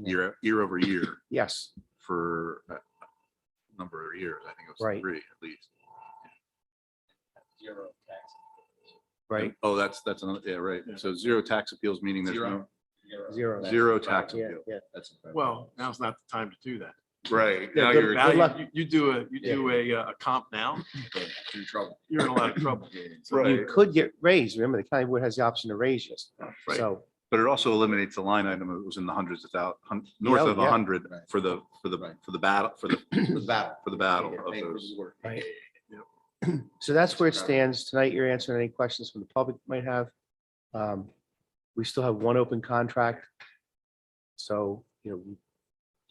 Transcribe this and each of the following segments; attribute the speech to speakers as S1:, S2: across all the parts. S1: year, year over year
S2: Yes,
S1: for a a number of years. I think it was
S2: Right.
S1: three at least.
S3: Zero tax.
S2: right,
S1: Oh, that's, that's another, yeah, right. So zero tax appeals, meaning there's no,
S3: Zero. Zero.
S2: zero.
S1: zero tax
S2: Yeah,
S1: appeal.
S2: yeah.
S1: That's
S4: Well, now's not the time to do that.
S1: right.
S2: Yeah,
S1: Now
S2: good
S1: you're,
S2: value.
S4: Now,
S2: luck.
S4: you, you do a, you do a, uh, a comp now,
S3: You're in trouble.
S4: you're in a lot of trouble.
S2: You
S1: right,
S2: could get raised. Remember, the county board has the option to raise you.
S1: Right.
S2: So,
S1: but it also eliminates the line item. It was in the hundreds of thou, hun- north
S2: Yeah,
S1: of
S2: yeah.
S1: a hundred
S3: Right.
S1: for the, for the, for the battle, for the,
S3: Battle.
S1: for the battle of
S3: Pay for
S1: those.
S3: the work.
S2: Right. so that's where it
S3: Right.
S2: stands. Tonight, you're answering any questions from the public might have. Um, We still have one open contract. So, you know, we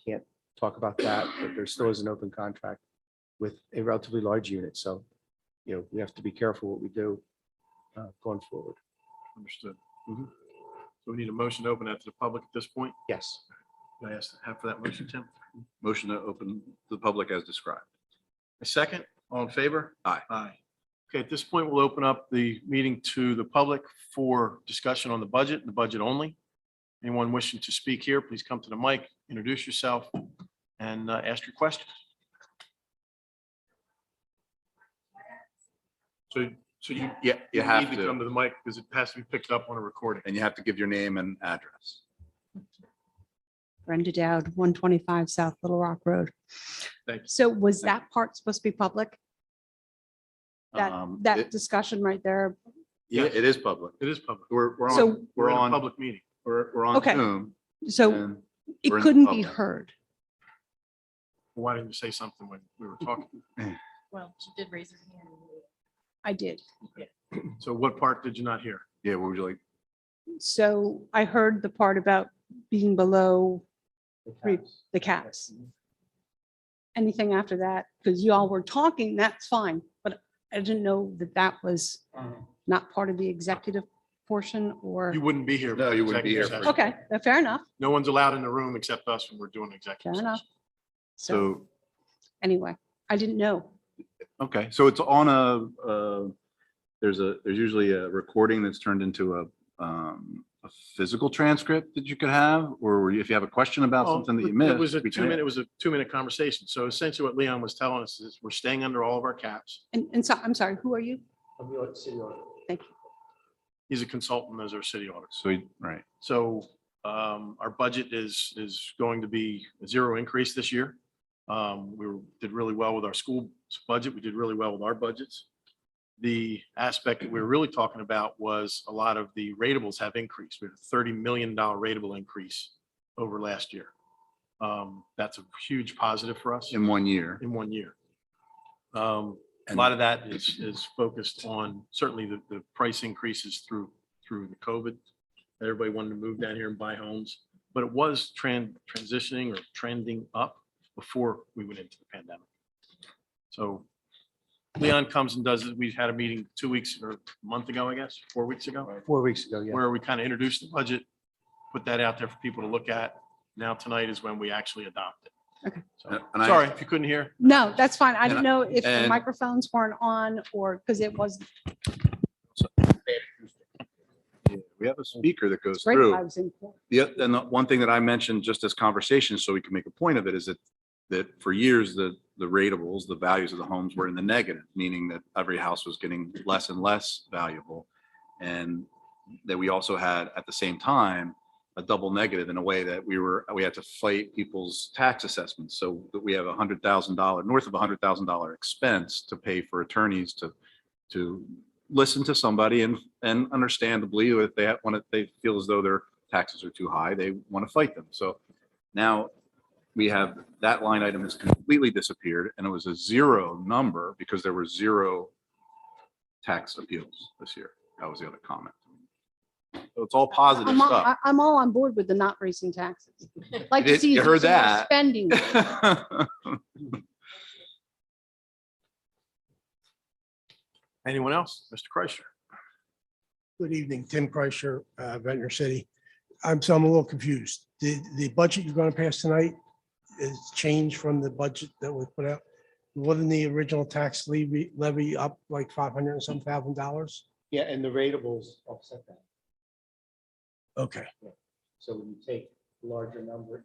S2: can't talk about that, but there still is an open contract with a relatively large unit. So, you know, we have to be careful what we do uh, going forward.
S4: Understood. Mm-hmm. So we need a motion to open that to the public at this point.
S2: Yes.
S4: Can I ask, have for that motion, Tim?
S1: Motion to open to the public as described.
S4: A second, all in favor?
S1: Aye.
S4: Aye. Okay, at this point, we'll open up the meeting to the public for discussion on the budget, the budget only. Anyone wishing to speak here, please come to the mic, introduce yourself, and uh, ask your question. So, so you
S1: Yeah, you have
S4: need Come
S1: to,
S4: to the mic because it has to be picked up on a recording.
S1: and you have to give your name and address.
S5: Brenda Dowd, 125 South Little Rock Road.
S4: Thank you.
S5: So was that part supposed to be public? That,
S1: Um,
S5: that
S1: it-
S5: discussion right there?
S1: Yeah, it is public.
S4: It is public.
S1: We're, we're on,
S5: So-
S4: We're
S1: we're
S4: in a
S1: on,
S4: Public meeting.
S1: we're, we're on
S5: Okay.
S1: Zoom.
S5: So
S1: and
S5: it
S1: we're in
S5: couldn't be
S1: public.
S5: heard.
S4: Why didn't you say something when we were talking?
S6: Well, she did raise her hand.
S5: I did.
S4: So what part did you not hear?
S1: Yeah, what would you like?
S5: So I heard the part about being below Three.
S2: Yes.
S5: the caps. Anything after that, because you all were talking, that's fine, but I didn't know that that was not part of the executive portion or,
S4: You wouldn't be here.
S1: No,
S4: for
S1: you wouldn't be
S4: executive
S1: here for-
S4: session.
S5: okay, uh, fair enough.
S4: No one's allowed in the room except us when we're doing executive.
S5: Fair enough.
S4: session.
S5: So
S1: So,
S5: anyway, I didn't know.
S1: okay, so it's on a, uh, there's a, there's usually a recording that's turned into a, um, a physical transcript that you could have, or if you have a question about
S4: Well,
S1: something that you missed.
S4: It was a
S1: we can-
S4: two minute, it was a two minute conversation. So essentially what Leon was telling us is we're staying under all of our caps.
S5: And, and so, I'm sorry, who are you?
S4: He's a consultant, those are city audits.
S1: So, we- right,
S4: So um, our budget is, is going to be a zero increase this year. Um, We were- did really well with our school budget. We did really well with our budgets. The aspect that we were really talking about was a lot of the ratables have increased. We had a thirty million dollar ratable increase over last year. Um, That's a huge positive for us
S1: in one year.
S4: in one year. Um, A
S1: And-
S4: lot of that is, is focused on certainly the, the price increases through, through the COVID. Everybody wanted to move down here and buy homes, but it was trend, transitioning or trending up before we went into the pandemic. So Leon comes and does, it. we had a meeting two weeks or a month ago, I guess, four weeks ago,
S2: Four weeks ago, yeah.
S4: where we kind of introduced the budget, put that out there for people to look at. Now tonight is when we actually adopt it.
S5: Okay.
S4: So,
S1: And I-
S4: sorry if you couldn't hear.
S5: No, that's fine. I
S1: And I-
S5: didn't know if the
S1: and-
S5: microphones weren't on or, because it was
S1: Yeah, We have a speaker that goes
S5: great.
S1: through.
S5: I was in. court.
S1: The, oth- and the one thing that I mentioned just as conversation, so we can make a point of it, is that, that for years, the, the ratables, the values of the homes were in the negative, meaning that every house was getting less and less valuable. And that we also had, at the same time, a double negative in a way that we were, we had to fight people's tax assessments. So that we have a hundred thousand dollar, north of a hundred thousand dollar expense to pay for attorneys to, to listen to somebody and, and understandably, if they want to, they feel as though their taxes are too high, they want to fight them. So now we have, that line item has completely disappeared and it was a zero number because there were zero tax appeals this year. That was the other comment. So it's all positive
S5: I'm, all-
S1: stuff.
S5: I- I'm all on board with the not raising taxes. Like
S1: You
S5: to
S1: did-
S5: see
S1: you heard
S5: zero
S1: that.
S5: Spending.
S4: Anyone else? Mr. Kreischer?
S7: Good evening, Tim Kreischer, uh, Ventnor City. I'm, so I'm a little confused. The, the budget you're going to pass tonight is changed from the budget that was put out. Wasn't the original tax levy, levy up like 500 and some thousand dollars?
S2: Yeah, and the ratables offset that.
S7: Okay,
S2: So when you take larger number